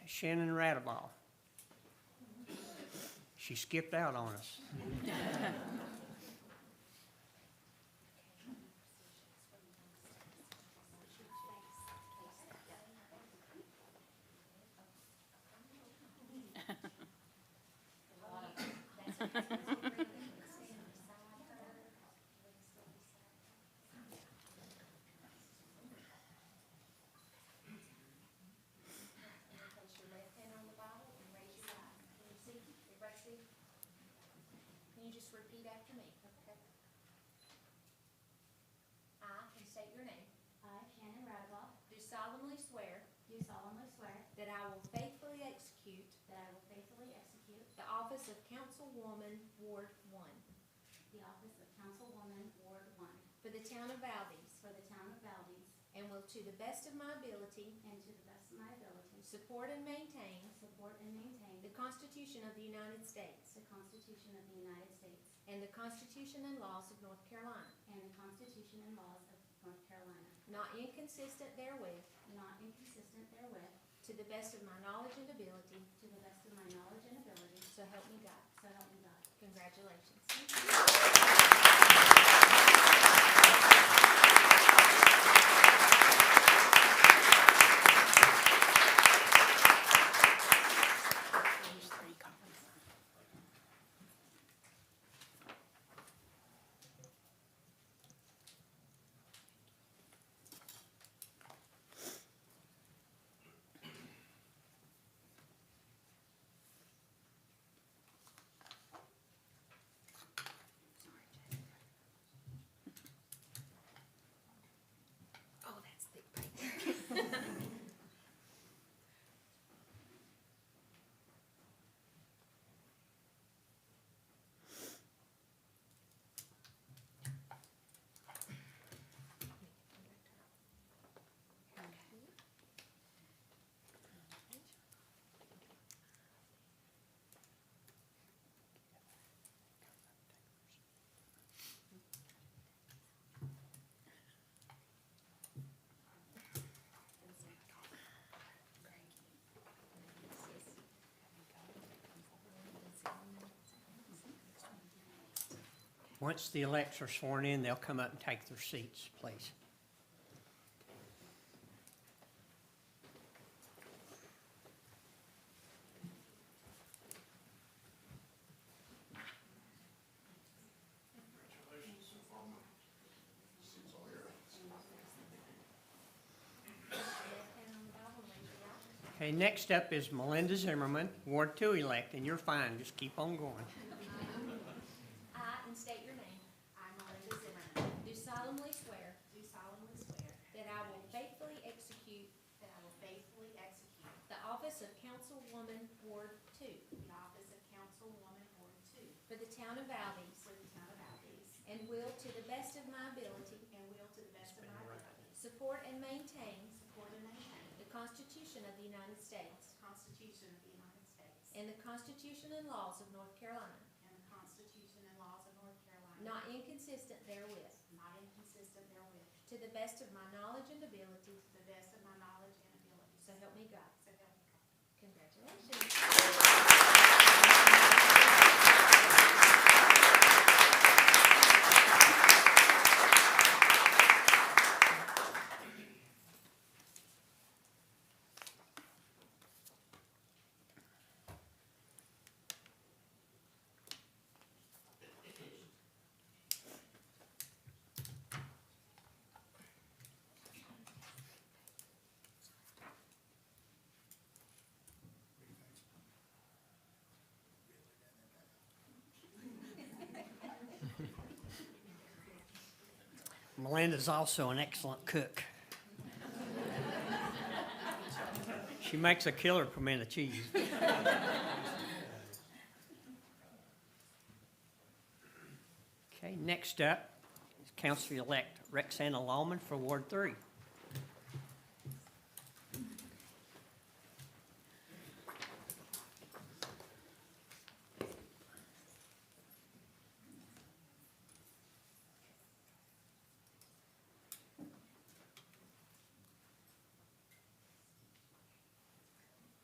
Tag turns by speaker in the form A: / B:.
A: Shannon Radabaugh. She skipped out on us.
B: Place your left hand on the Bible and raise your right. Can you see? Everybody see? Can you just repeat after me? Okay. I, and state your name,
C: I, Shannon Radabaugh,
B: do solemnly swear
C: do solemnly swear
B: that I will faithfully execute
C: that I will faithfully execute
B: the office of Councilwoman Ward One
C: the office of Councilwoman Ward One
B: for the town of Valdez,
C: for the town of Valdez
B: and will to the best of my ability
C: and to the best of my ability
B: support and maintain
C: support and maintain
B: the Constitution of the United States
C: the Constitution of the United States
B: and the Constitution and laws of North Carolina,
C: and the Constitution and laws of North Carolina,
B: not inconsistent therewith,
C: not inconsistent therewith,
B: To the best of my knowledge and ability,
C: to the best of my knowledge and ability,
B: so help me God.
C: so help me God.
B: Congratulations. Oh, that's thick paper.
A: Once the elects are sworn in, they'll come up and take their seats, please.
B: Left hand on the Bible, raise your right.
A: Okay, next up is Melinda Zimmerman, Ward Two elect, and you're fine, just keep on going.
B: I, and state your name,
C: I, Melinda Zimmerman,
B: do solemnly swear
C: do solemnly swear
B: that I will faithfully execute
C: that I will faithfully execute
B: the office of Councilwoman Ward Two
C: the office of Councilwoman Ward Two
B: for the town of Valdez,
C: for the town of Valdez
B: and will, to the best of my ability,
C: and will to the best of my ability
B: support and maintain
C: support and maintain
B: the Constitution of the United States
C: Constitution of the United States.
B: and the Constitution and laws of North Carolina,
C: And the Constitution and laws of North Carolina.
B: not inconsistent therewith,
C: Not inconsistent therewith.
B: to the best of my knowledge and ability,
C: To the best of my knowledge and ability.
B: So help me God.
C: So help me God.
B: Congratulations.
A: Melinda's also an excellent cook. She makes a killer pimento cheese. Okay, next up is Council-elect Rexanna Lawman for Ward Three.